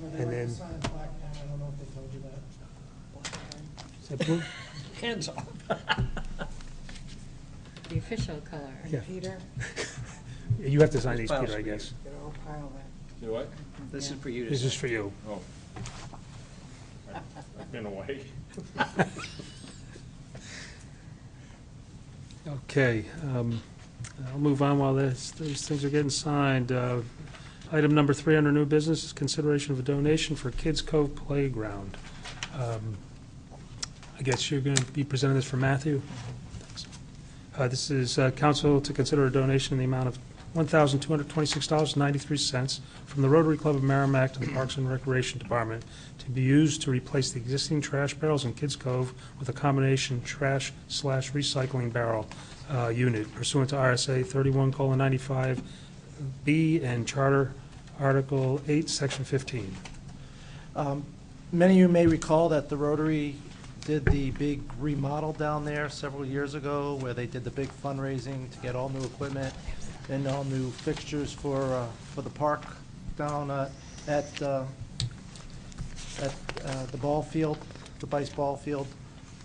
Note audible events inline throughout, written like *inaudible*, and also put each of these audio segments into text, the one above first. Well, they And like to then- sign black pen, I don't know if they told you that. Is that blue? Hands off. The official color. Yeah. Peter, You have to sign these, Files Peter, for I you. guess. get a whole pile there. Do what? This is for you This is for you. Oh. I- I've been away. Okay, um, I'll move on while this, those things are getting signed. Uh, Item number three under new business is consideration of a donation for Kids Cove Playground. Um, I guess you're going to be presenting this for Matthew? Thanks. Uh, This is uh, council to consider a donation in the amount of $1,226.93 from the Rotary Club of Merrimack to the Parks and Recreation Department to be used to replace the existing trash barrels in Kids Cove with a combination trash slash recycling barrel uh, unit pursuant to RSA 31:95B and Charter Article 8, Section 15. Um, Many of you may recall that the Rotary did the big remodel down there several years ago, where they did the big fundraising to get all new equipment and all new fixtures for, uh, for the park down uh, at, uh, at uh, the ball field, the Bice Ball Field.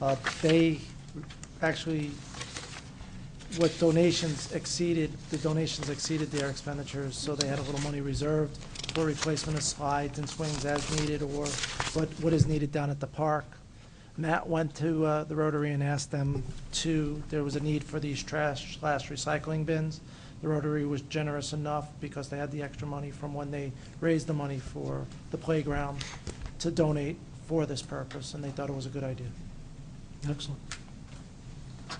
Uh, They actually, what donations exceeded, the donations exceeded their expenditures, so they had a little money reserved for replacement of slides and swings as needed, or what, what is needed down at the park. Matt went to uh, the Rotary and asked them to, there was a need for these trash slash recycling bins. The Rotary was generous enough, because they had the extra money from when they raised the money for the playground, to donate for this purpose, and they thought it was a good idea. Excellent.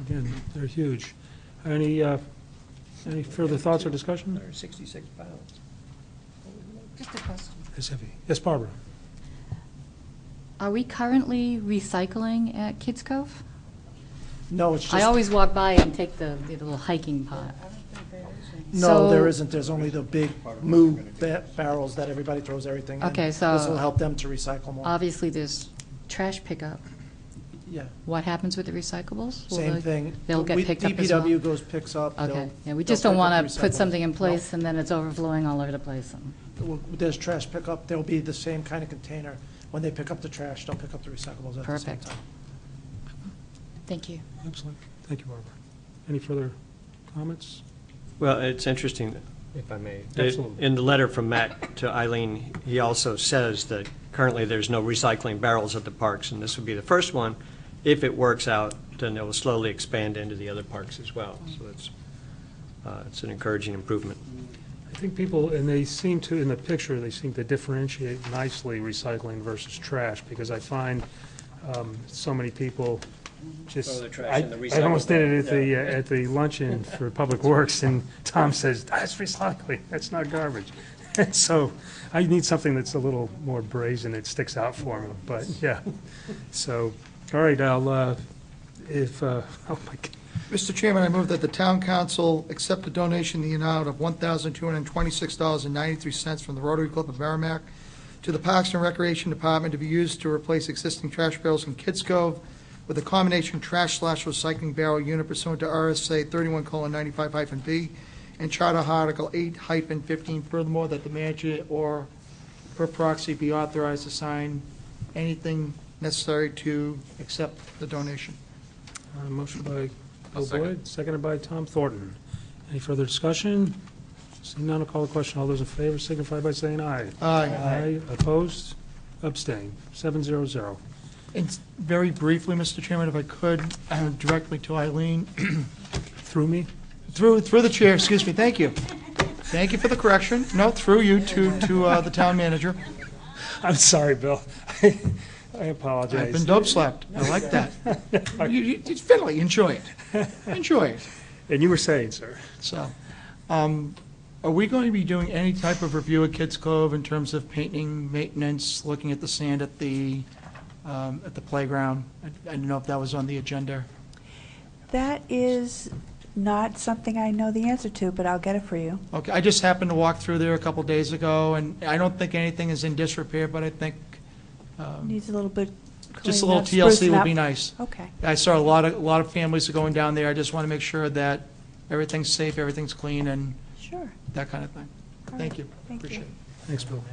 Again, they're huge. Any, uh, any further thoughts or discussion? Hundred sixty-six pounds. Just a question. It's heavy. Yes, Barbara? Are we currently recycling at Kids Cove? No, it's just. I always walk by and take the the little hiking I pot. don't think there is any. No, there So- isn't. There's only the big moo ba- barrels that everybody throws everything in. Okay, so- This will help them to recycle more. Obviously, there's trash pickup. Yeah, What happens with the recyclables? Will same they- thing. They'll We- get picked up as well? DPW goes, picks up. they'll- Okay, yeah, we they'll just don't pick up want to put recyclables. something in No. place and then it's overflowing all over the place. Well, There's trash pickup. There'll be the same kind of container. When they pick up the trash, they'll pick up the recyclables at the same Perfect. time. Thank you. Excellent. Thank you, Barbara. Any further comments? Well, it's interesting, if I may. Absolutely. In the letter from Matt to Eileen, he also says that currently there's no recycling barrels at the parks, and this would be the first one. If it works out, then it will slowly expand into the other parks as well. So it's, uh, it's an encouraging improvement. I think people, and they seem to, in the picture, they seem to differentiate nicely recycling versus trash, because I find um, so many people just. Throw the trash in the I- I almost recycle bin, did it at the, yeah. uh, at the luncheon for Public Works, and Tom says, that's recycling, that's not garbage. *laughs* And so I need something that's a little more brazen, it sticks out for me, but, yeah. So, all right, I'll, uh, if, uh, *laughs* oh my God. Mr. Chairman, I move that the town council accept a donation in the amount of $1,226.93 from the Rotary Club of Merrimack to the Parks and Recreation Department to be used to replace existing trash barrels in Kids Cove with a combination trash slash recycling barrel unit pursuant to RSA 31:95-B and Charter Article 8 hyphen 15. Furthermore, that the manager or per proxy be authorized to sign anything necessary to accept the donation. Uh, Motion by Bill Boyd, seconded by Tom Thornton. Any further discussion? Seeing none, I'll call the question. All those in favor signify by saying aye. Aye. Aye, opposed, abstained, seven zero zero. And very briefly, Mr. Chairman, if I could, uh, directly to Eileen, Through me? through, through the chair, excuse me, thank you. Thank you for the correction. No, through you to, to uh, the town manager. I'm sorry, Bill. *laughs* I apologize. I've been dope slapped. I like that. You- you- It's fiddly, enjoy it. Enjoy it. And you were saying, sir? So, um, are we going to be doing any type of review at Kids Cove in terms of painting, maintenance, looking at the sand at the, um, at the playground? I I don't know if that was on the agenda. That is not something I know the answer to, but I'll get it for you. Okay, I just happened to walk through there a couple days ago, and I don't think anything is in disrepair, but I think um, Needs a little bit just a cleaning little up, sprucing TLC would up. be nice. Okay, I saw a lot of, a lot of families going down there, I just want to make sure that everything's safe, everything's clean, and sure. that kind of thing. All Thank right, you, thank you. appreciate it. Thanks, Bill.